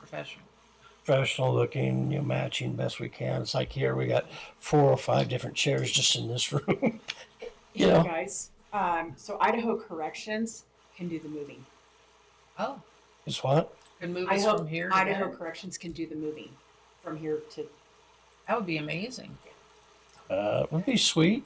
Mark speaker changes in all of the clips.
Speaker 1: professional.
Speaker 2: professional looking, you know, matching best we can. It's like here we got four or five different chairs just in this room. you
Speaker 3: Hey,
Speaker 2: know,
Speaker 3: Guys, um, so Idaho Corrections can do the moving.
Speaker 1: Oh,
Speaker 2: it's what?
Speaker 1: could move us
Speaker 3: Idaho,
Speaker 1: from here to
Speaker 3: Idaho
Speaker 1: there.
Speaker 3: Corrections can do the moving from here to.
Speaker 1: That would be amazing.
Speaker 2: Uh, it would be sweet.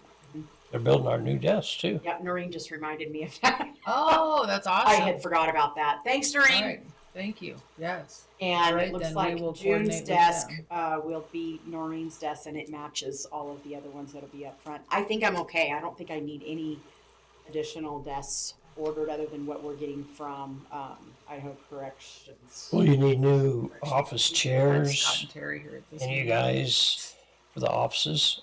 Speaker 2: They're building our new desk too.
Speaker 3: Yep, Noreen just reminded me of that.
Speaker 1: Oh, that's awesome.
Speaker 3: I had forgot about that. Thanks, Noreen.
Speaker 1: All right. Thank you. Yes.
Speaker 3: And
Speaker 1: Alright,
Speaker 3: it looks
Speaker 1: then we
Speaker 3: like
Speaker 1: will
Speaker 3: June's
Speaker 1: coordinate with
Speaker 3: desk
Speaker 1: them.
Speaker 3: uh, will be Noreen's desk, and it matches all of the other ones that'll be up front. I think I'm okay. I don't think I need any additional desks ordered other than what we're getting from um, Idaho Corrections.
Speaker 2: Well, you need new
Speaker 1: That's
Speaker 2: office
Speaker 1: Scott
Speaker 2: chairs
Speaker 1: and Terry here at this.
Speaker 2: and you
Speaker 1: meeting.
Speaker 2: guys for the offices.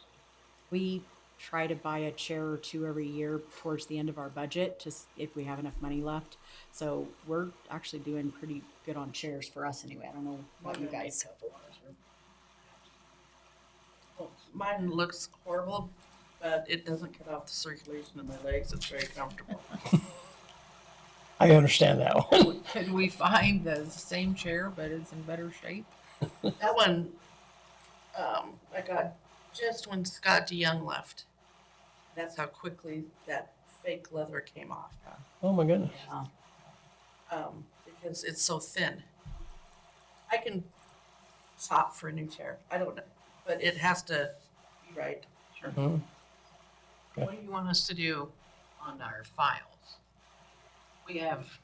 Speaker 3: We try to buy a chair or two every year towards the end of our budget, just if we have enough money left. So we're actually doing pretty good on chairs for us anyway. I don't know about you guys.
Speaker 4: Mine looks horrible, but it doesn't cut off the circulation of my legs. It's very comfortable.
Speaker 2: I understand that one.
Speaker 1: Could we find the same chair, but it's in better shape?
Speaker 4: that one, um, I got just when Scott DeYoung left. That's how quickly that fake leather came off.
Speaker 2: Oh my goodness.
Speaker 4: Um, because it's so thin. I can shop for a new chair. I don't know, but it has to be right.
Speaker 2: Mhm.
Speaker 5: What do you want us to do on our files? We have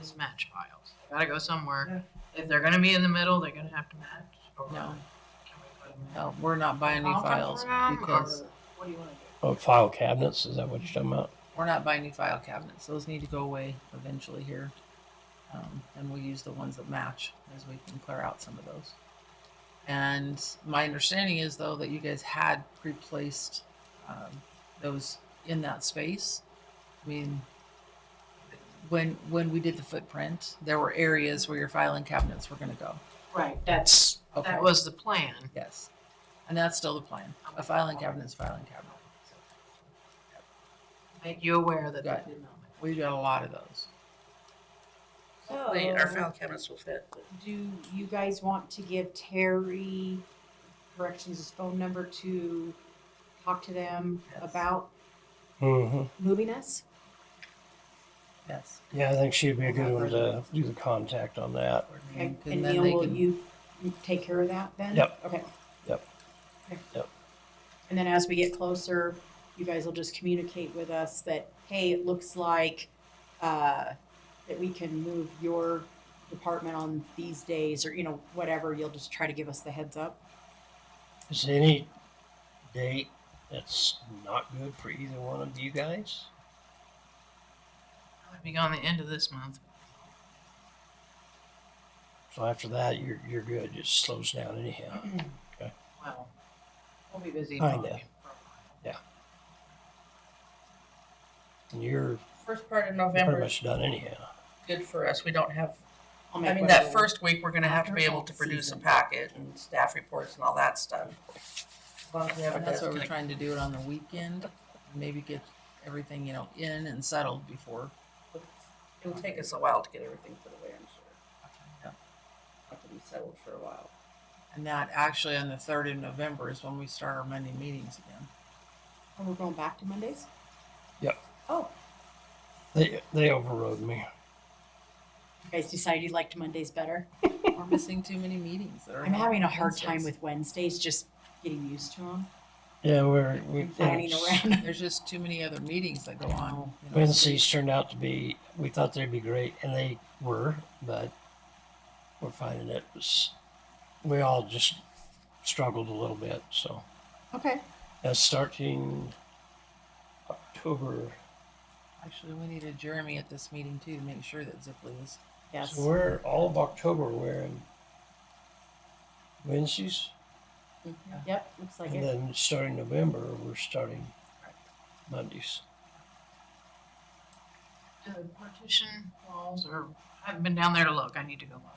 Speaker 5: mismatch files. They Gotta go somewhere. If they're gonna be in the middle, they're gonna have to match. or
Speaker 1: No.
Speaker 5: can we put 'em in
Speaker 1: No, we're not buying new
Speaker 5: conference
Speaker 1: files
Speaker 5: room,
Speaker 1: because
Speaker 5: or What do you wanna do?
Speaker 2: Oh, file cabinets. Is that what you're talking about?
Speaker 1: we're not buying new file cabinets. Those need to go away eventually here. Um, and we'll use the ones that match as we can clear out some of those. And my understanding is though that you guys had replaced um, those in that space. I mean, when when we did the footprint, there were areas where your filing cabinets were going to go.
Speaker 5: Right, that's,
Speaker 1: Okay.
Speaker 5: that was the plan.
Speaker 1: Yes. And that's still the plan. A filing cabinet is a filing cabinet.
Speaker 5: Make you aware that they
Speaker 1: Got
Speaker 5: did not.
Speaker 1: We've got a lot of those.
Speaker 3: Oh,
Speaker 4: Hopefully, our file cabinets will fit.
Speaker 3: Do you guys want to give Terry Corrections' phone number to talk to them
Speaker 1: Yes.
Speaker 3: about
Speaker 2: hmm
Speaker 3: moving us?
Speaker 1: Yes.
Speaker 2: Yeah, I think she'd be a good one to do the contact on that.
Speaker 3: Okay,
Speaker 1: And
Speaker 3: and
Speaker 1: then
Speaker 3: Neil,
Speaker 1: they
Speaker 3: will
Speaker 1: can,
Speaker 3: you take care of that then?
Speaker 2: Yep.
Speaker 3: Okay.
Speaker 2: Yep.
Speaker 3: Okay.
Speaker 2: Yep.
Speaker 3: And then as we get closer, you guys will just communicate with us that, hey, it looks like, uh, that we can move your department on these days, or, you know, whatever, you'll just try to give us the heads up.
Speaker 2: Is there any date that's not good for either one of you guys?
Speaker 5: I'll Be gone the end of this month.
Speaker 2: So after that, you're you're good. It slows down anyhow.
Speaker 5: Well, we'll be busy.
Speaker 2: Kinda.
Speaker 5: probably for a while.
Speaker 2: And you're
Speaker 4: First part of
Speaker 2: pretty
Speaker 4: November is
Speaker 2: much done anyhow.
Speaker 4: good for us. We don't have
Speaker 3: I'll
Speaker 4: I
Speaker 3: make
Speaker 4: mean, that
Speaker 3: whatever-
Speaker 4: first week, we're gonna have to be able to
Speaker 3: After
Speaker 4: produce a
Speaker 3: season.
Speaker 4: packet and staff reports and all that stuff. As long as we have a
Speaker 1: and that's
Speaker 4: desk
Speaker 1: why we're
Speaker 4: and a-
Speaker 1: trying to do it on the weekend. Maybe get everything, you know, in and settled before.
Speaker 4: It'll take us a while to get everything put away, I'm sure.
Speaker 1: Yeah.
Speaker 4: Have to be settled for a while.
Speaker 1: And that actually on the third of November is when we start our Monday meetings again.
Speaker 3: Oh, we're going back to Mondays?
Speaker 2: Yep.
Speaker 3: Oh,
Speaker 2: They they overrode me.
Speaker 3: you guys decided you liked Mondays better?
Speaker 1: We're missing too many meetings that are.
Speaker 3: I'm
Speaker 1: not
Speaker 3: having a hard time
Speaker 1: Wednesdays.
Speaker 3: with Wednesdays, just getting used to them,
Speaker 2: Yeah, we're we
Speaker 3: planning around.
Speaker 1: There's just too many other meetings that go on. you know.
Speaker 2: Wednesdays turned out to be. We thought they'd be great, and they were, but we're finding it was. We all just struggled a little bit. So
Speaker 3: Okay.
Speaker 2: that's starting October.
Speaker 1: Actually, we needed Jeremy at this meeting too to make sure that Zipley is.
Speaker 3: Yes.
Speaker 2: So we're all of October. We're in Wednesdays.
Speaker 3: Yep, looks like
Speaker 2: And
Speaker 3: it.
Speaker 2: then starting November, we're starting Mondays.
Speaker 5: the partition walls or, I haven't been down there to look, I need to go look.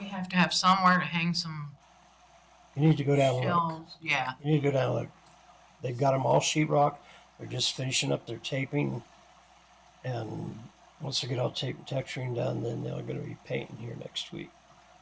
Speaker 5: We have to have somewhere to hang some
Speaker 2: You need to go down and look.
Speaker 5: shelves, yeah.
Speaker 2: You need to go down and look. They've got them all sheetrock. They're just finishing up their taping. And once they get all tape and texturing done, then they're going to be painting here next week.